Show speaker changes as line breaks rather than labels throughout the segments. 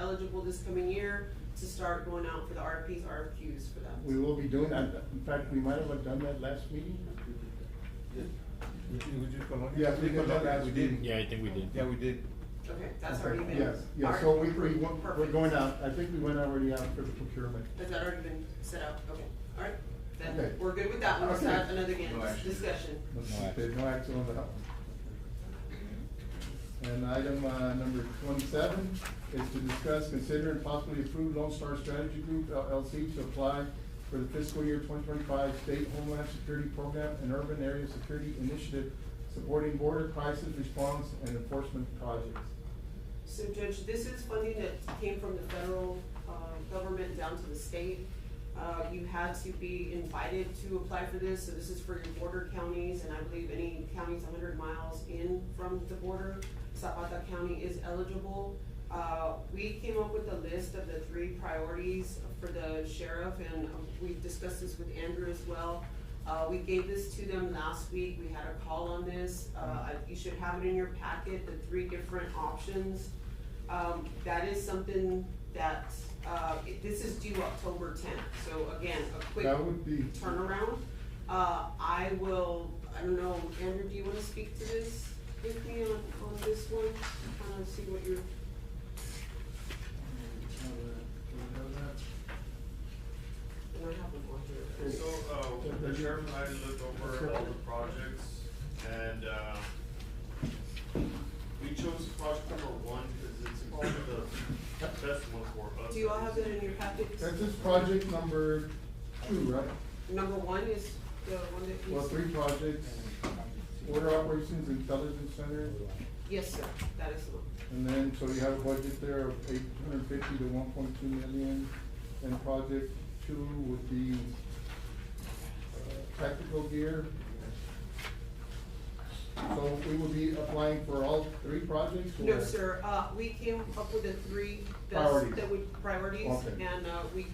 eligible this coming year to start going out for the RFPs, RFQs for that.
We will be doing that. In fact, we might have done that last meeting.
We did, we did Colonia?
Yeah, we did that last
We did.
week.
Yeah, I think we did.
Yeah, we did.
Okay, that's already been.
Yes, yes, so we, we,
Perfect.
we're going out, I think we went already out for the procurement.
Has that already been set up? Okay, all right,
Okay.
then we're good with that one, let's
Okay.
have another again,
No action.
discussion.
There's no action on that one. And item, uh, number twenty-seven is to discuss, consider, and possibly approve Lone Star Strategy Group LLC to apply for the fiscal year twenty twenty-five State Homeland Security Program and Urban Area Security Initiative supporting border crisis response and enforcement projects.
So Judge, this is funding that came from the federal, uh, government down to the state. Uh, you had to be invited to apply for this, so this is for your border counties, and I believe any counties hundred miles in from the border, Zapata County is eligible. Uh, we came up with a list of the three priorities for the sheriff, and um, we discussed this with Andrew as well. Uh, we gave this to them last week, we had a call on this, uh, I- you should have it in your packet, the three different options. Um, that is something that, uh, it- this is due October tenth, so again, a quick
That would be.
turnaround. Uh, I will, I don't know, Andrew, do you wanna speak to this with me on, on this one? Kinda see what you're, and I have one on here.
So, uh, the sheriff and I looked over all the projects and, uh, we chose project number one because it's probably the best one for us.
Do you all have that in your packets?
That's just project number two, right?
Number one is the one that he's.
Well, three projects, border operations intelligence center,
Yes, sir, that is the one.
and then, so you have a budget there of eight hundred fifty to one point two million. And project two would be uh, tactical gear. So we will be applying for all three projects? or-
No, sir, uh, we came up with the three best
Priorities.
that would, priorities,
Okay.
and, uh, we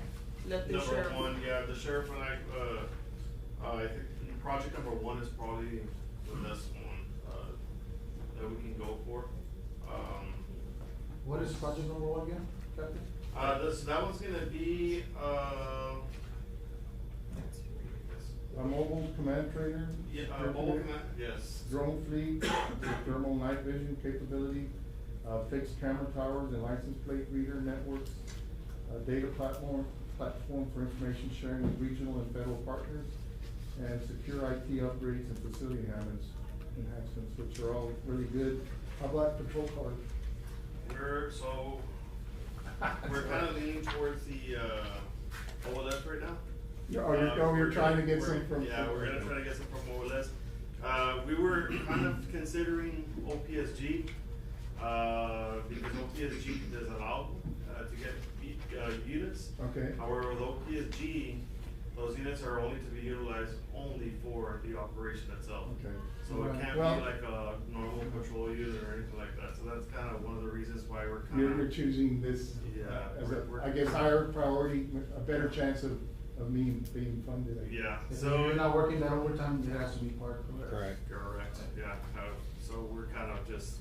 let the
Number
sheriff.
one, yeah, the sheriff and I, uh, uh, I think project number one is probably the best one, uh, that we can go for. Um,
What is project number one again, Captain?
Uh, this, that one's gonna be, uh,
A mobile command trainer?
yeah, uh, mobile command, yes.
drone fleet, with thermal night vision capability, uh, fixed camera towers and license plate reader networks, uh, data platform, platform for information sharing with regional and federal partners, and secure IT upgrades and facility enhancements, enhancements, which are all really good. How about patrol cars?
We're, so, we're kinda leaning towards the, uh, OLS right now.
Yeah, oh, you're-
Uh,
oh, you're
we're
trying to
gonna-
get some
we're-
from-
Yeah, we're gonna try to get some from OLS. Uh, we were kind of considering OPSG, uh, because OPSG does allow, uh, to get, e- uh, units.
Okay.
However, with OPSG, those units are only to be utilized only for the operation itself.
Okay.
So it
Right.
can't
Well-
be like a normal patrol unit or anything like that, so that's kind of one of the reasons why we're kind
You're,
of.
you're choosing this uh,
Yeah,
as a,
we're- we're-
I guess, higher priority, a better chance of, of me being funded. I guess.
Yeah,
If
so.
You're not working that overtime, it has to be part of it.
Correct.
Correct, yeah, uh, so we're kind of just,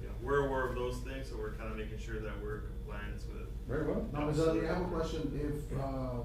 you know, we're aware of those things, so we're kind of making sure that we're compliant with.
Very well.
Now, Ms. Dudley, I have a question. If, uh,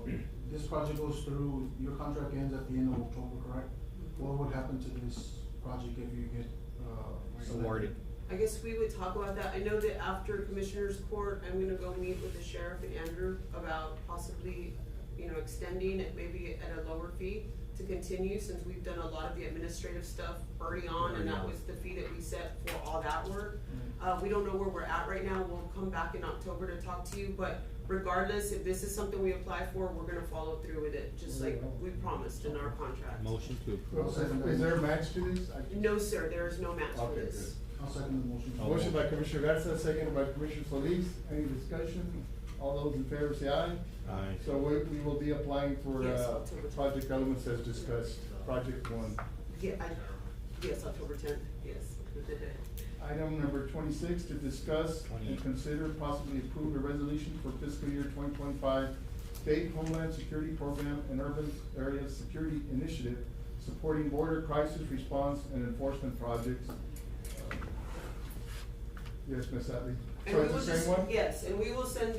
this project goes through, your contract ends at the end of October, correct? What would happen to this project if you get, uh? selected?
Awarded.
I guess we would talk about that. I know that after Commissioners Court, I'm gonna go meet with the sheriff and Andrew about possibly, you know, extending it maybe at a lower fee to continue, since we've done a lot of the administrative stuff early on, and that was the fee that we set for all that work.
Mm-hmm.
Uh, we don't know where we're at right now. We'll come back in October to talk to you, but regardless, if this is something we apply for, we're gonna follow through with it, just
Mm-hmm.
like we promised in our contract.
Motion to
Well,
approve.
Is is there a match to this? I-
No, sir, there is no match for
Okay,
this.
good.
I'll second the motion.
Oh.
Motion by Commissioner Garza, second by Commissioner Solis. Any discussion? All those in favor say aye.
Aye.
So we, we will be applying for,
Yes,
uh,
October.
project elements as discussed, project one.
Yeah, I, yes, October tenth, yes.
Item number twenty-six, to discuss and
Twenty.
consider possibly approve a resolution for fiscal year twenty twenty-five State Homeland Security Program and Urban Area Security Initiative supporting border crisis response and enforcement projects. Uh, Yes, Ms. Atley?
And
So
we
it's
will
the
just-
same one?
Yes, and we will send